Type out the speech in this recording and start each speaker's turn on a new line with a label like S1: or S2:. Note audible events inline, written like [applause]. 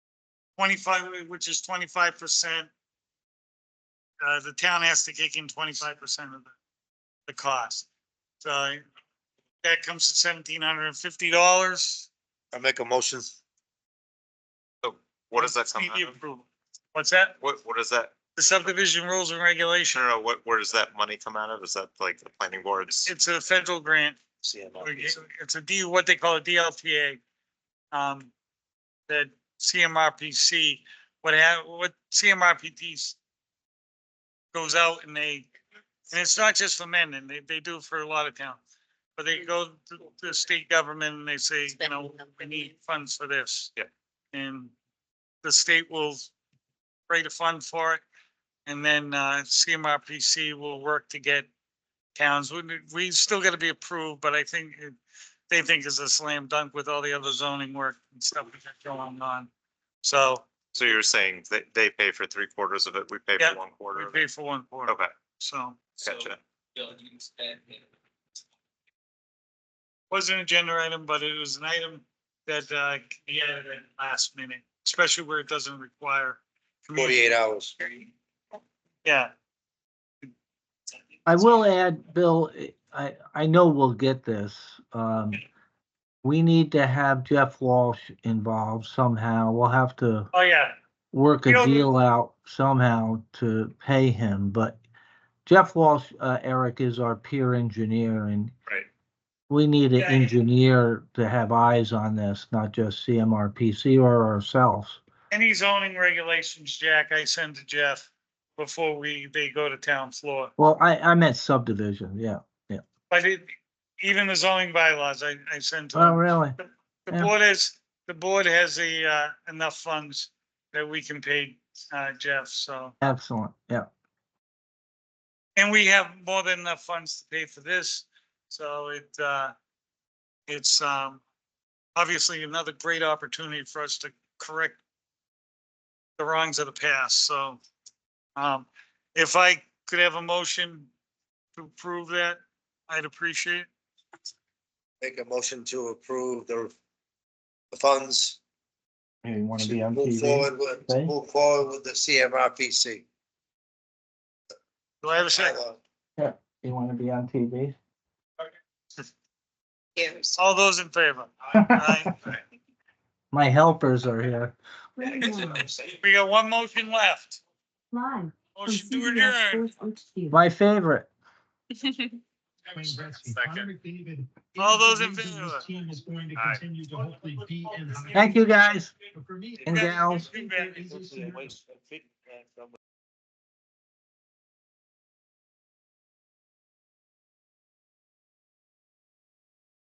S1: twenty-five, which is twenty-five percent. Uh, the town has to kick in twenty-five percent of the, the cost. So that comes to seventeen hundred and fifty dollars.
S2: I make a motion.
S3: What does that come out of?
S1: What's that?
S3: What, what is that?
S1: The subdivision rules and
S3: No,
S1: regulation.
S3: no, no, what, where does that money come out of? Is that like the planning boards?
S1: It's a federal grant. It's a D, what they call a DLTA. Um, that CMRPC, what ha, what CMRPTs goes out and they, and it's not just for men, and they, they do it for a lot of towns. But they go to the state government and they say, you know, we need funds for this.
S3: Yeah.
S1: And the state will create a fund for it. And then, uh, CMRPC will work to get towns, we, we still gotta be approved, but I think it- they think it's a slam dunk with all the other zoning work and stuff we got going on. So
S3: So you're saying that they pay for three quarters of it, we pay
S1: Yeah,
S3: for one
S1: we
S3: quarter of
S1: pay
S3: it?
S1: for one quarter,
S3: Okay,
S1: so.
S3: gotcha.
S1: Wasn't an agenda item, but it was an item that, uh, can be added at last minute, especially where it doesn't require. community-
S2: Forty-eight hours.
S1: Yeah.
S4: I will add, Bill, I, I know we'll get this. Um, we need to have Jeff Walsh involved somehow. We'll have to
S1: Oh, yeah,
S4: work
S1: We
S4: a
S1: don't-
S4: deal out somehow to pay him, but Jeff Walsh, uh, Eric is our peer engineer and
S3: Right.
S4: we need an
S1: Yeah.
S4: engineer to have eyes on this, not just CMRPC or ourselves.
S1: any zoning regulations, Jack, I send to Jeff before we, they go to town floor.
S4: Well, I, I meant subdivision, yeah.
S1: But it, even the zoning bylaws, I, I send to
S4: Oh,
S1: them.
S4: really?
S1: The
S4: yeah.
S1: board is, the board has a, uh, enough funds that we can pay, uh, Jeff, so.
S4: Excellent, yeah.
S1: And we have more than enough funds to pay for this, so it, uh, it's, um, obviously another great opportunity for us to correct the wrongs of the past, so, um, if I could have a motion to approve that, I'd appreciate it.
S2: Make a motion to approve the the funds
S4: You want to be
S2: to
S4: on
S2: move
S4: TV?
S2: forward with,
S4: Okay.
S2: move forward with the CMRPC.
S1: Do I have a second?
S4: You want to be on TV?
S5: Years.
S1: All those in favor? Aye.
S4: [laughs] My helpers are here.
S1: We got one motion left.
S6: Live. from
S1: Motion to
S6: CBS
S1: adjourn.
S6: Sports HQ.
S4: My favorite.
S3: Second.
S1: All those in favor?
S7: Team is going to
S3: Aye.
S7: continue to hopefully be in. high-
S4: Thank you, guys.
S7: But for me,
S4: And gals.
S7: there is a scenario